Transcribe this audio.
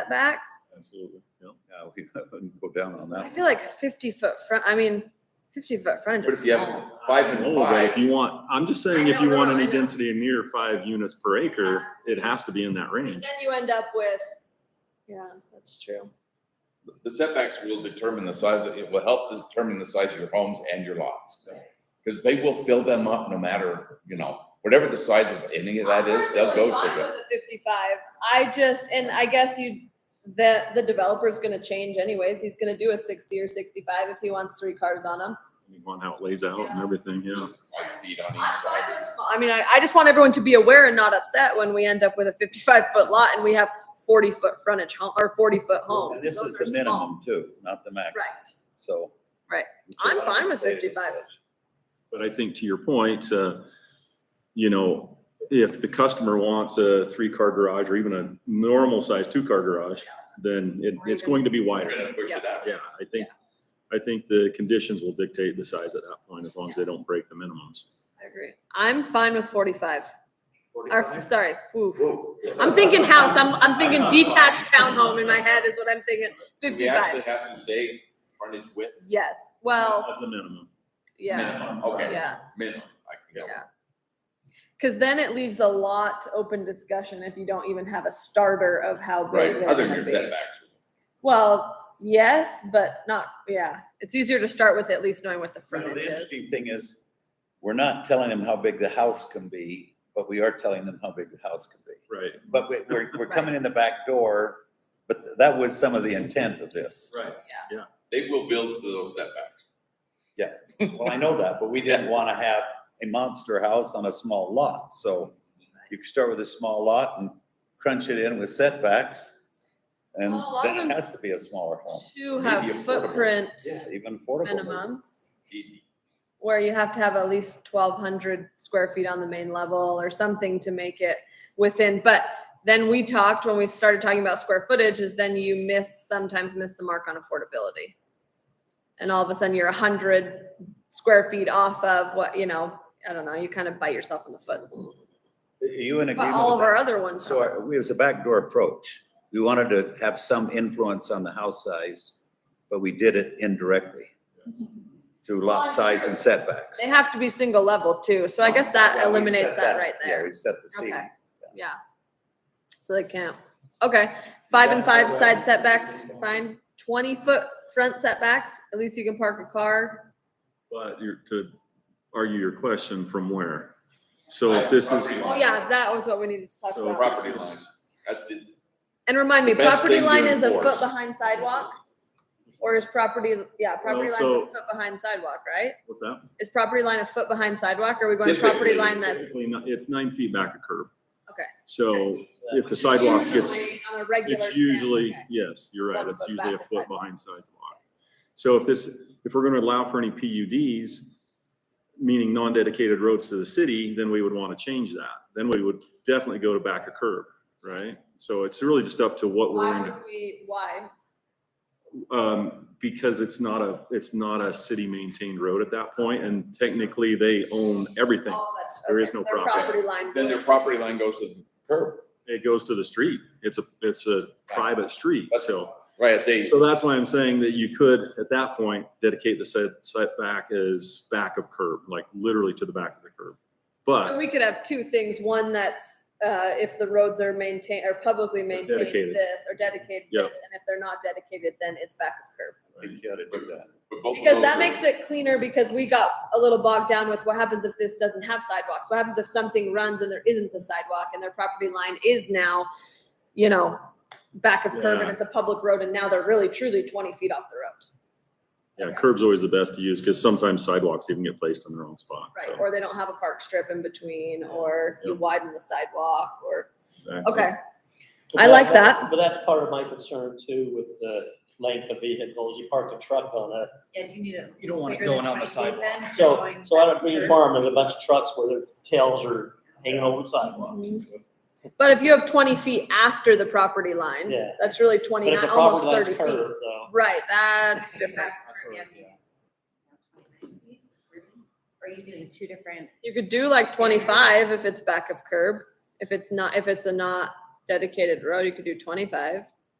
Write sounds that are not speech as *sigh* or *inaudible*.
setbacks. Absolutely, yeah. Yeah, we *laughs* wouldn't go down on I that. feel like fifty foot front, I mean, fifty foot front But is if you have small. five and Oh, but if five, you want, I'm just saying, I if you don't want know, I any know. density near five units per acre, it has to be in that Because range. then you end up with, yeah, that's true. the setbacks will determine the size, of- it will help determine the size of your homes and your lots. Because they will fill them up no matter, you know, whatever the size of any of that is, they'll go to them. Fifty-five, I just, and I guess you, the, the developer's gonna change anyways, he's gonna do a sixty or sixty-five if he wants three cars on him. You want how it lays out and Yeah. everything, yeah. Five feet on each I'm fine side. with small. I mean, I, I just want everyone to be aware and not upset when we end up with a fifty-five foot lot and we have forty foot frontage home, or forty foot homes. And This Oh, Those is are the small. minimum too, not the max, Right. so. Right. which a I'm lot of fine the with state is 55. such. But I think to your point, uh, you know, if the customer wants a three-car garage or even a normal size two-car garage, then it, Or it's even- going to be We're wider. gonna push it out. Yeah, I think, I think the conditions will dictate the size at that point, as long as they don't break the minimums. I agree. I'm fine with forty-five, or, f- 45? sorry, oof. Whoa. I'm thinking house, I'm, I'm thinking detached townhome in my head is what I'm thinking, Do We actually fifty-five. have to say frontage width Yes, well, As the minimum. yeah, minimum, okay. yeah, Minimum, I can get. yeah. Cause then it leaves a lot to open discussion if you don't even have a starter of how big Right, they're other than gonna your be. setbacks. Well, yes, but not, yeah, it's easier to start with at least knowing what the You know, frontage the is. interesting thing is, we're not telling them how big the house can be, but we are telling them how big the house can be. Right. But we- we're, *laughs* we're coming in the back door, but that was some of the intent of this. Right. Yeah. They will build to those setbacks. Well, I know that, but we didn't want to have a monster house on a small lot, so you could start with a small lot and crunch it in with setbacks. And Well, a lot of then them- it has to be a smaller home, To Maybe have affordable. footprint yeah, even affordable. minimums, He- where you have to have at least twelve hundred square feet on the main level or something to make it within, but then we talked, when we started talking about square footage, is then you miss, sometimes miss the mark on affordability. And all of a sudden, you're a hundred square feet off of what, you know, I don't know, you kind of bite yourself in the foot, Are you in but agreement all of with our that? other ones. So don't. our- we, it was a backdoor approach. We wanted to have some influence on the house size, but we did it *laughs* indirectly through lot size and setbacks. They have to be single level too, so I guess that Well, we eliminates set that right Yeah, there. we set the scene. Okay, yeah. So they can't, okay, five and five side setbacks, fine, twenty foot front setbacks, at least you can park a car. But you're, to argue your question from where? So if Right, this is, property Oh yeah, that was what we needed to talk so if about. Property this line. is, That's the, And remind me, The best property thing to line is a foot enforce. behind sidewalk? Or is property, yeah, property line so- a foot behind sidewalk, right? what's that? Is property line a foot behind sidewalk, or are we going property Typically- line that's, Typically, not- It's nine feet back a curb. Okay. So if the sidewalk gets, Usually on a regular it's stand, usually, okay. yes, you're right, One it's foot usually a back a foot sidewalk. behind sidewalk. So if this, if we're gonna allow for any PUDs, meaning non-dedicated roads to the city, then we would wanna change that. Then we would definitely go to back a curb, right? So it's really just up to what we're Why going would we, why? to, um, because it's not a, it's not a city maintained road at that point, and technically they own everything. Oh, that's- There okay, is no so their property. line. then their property line goes to the curb. It goes to the street. It's a, it's a private street, That's- so. Right, I say, So that's why I'm saying that you could, at that point, dedicate the set, setback as back of curb, like literally to the back of the curb. So But we could have two things, one that's, uh, if the roads are maintained, or publicly maintained dedicated. this, or dedicated Yeah. this, and if they're not dedicated, then it's back of curb. I think you ought to do that. but Oh, both of Because those that are- makes it cleaner, because we got a little bogged down with what happens if this doesn't have sidewalks? What happens if something runs and there isn't a sidewalk, and their property line is now, you know, back of curb, and Yeah. it's a public road, and now they're really truly twenty feet off the road? yeah, curb's always the best to use because sometimes sidewalks even get placed in the wrong spot. Right, So or they don't have a park strip in between, or you Yep. widen the sidewalk, or, Exactly. okay, But I like that. But that's part of my concern too with the length of vehicles. You park a truck on it. Yeah, do you need it? You don't want it bigger than going on the 20 feet sidewalk. then? So, Going so I back don't Green there. Farm, there's a bunch of trucks where their tails are hanging over the sidewalk. But if you have twenty feet after the property line, Yeah. that's really But if twenty-nine, the almost property line's thirty feet. curved though, Right, that's different. Yeah. Are you doing two different? You could do like twenty-five if it's back of curb. If it's not, if it's a not dedicated road, you could do twenty-five.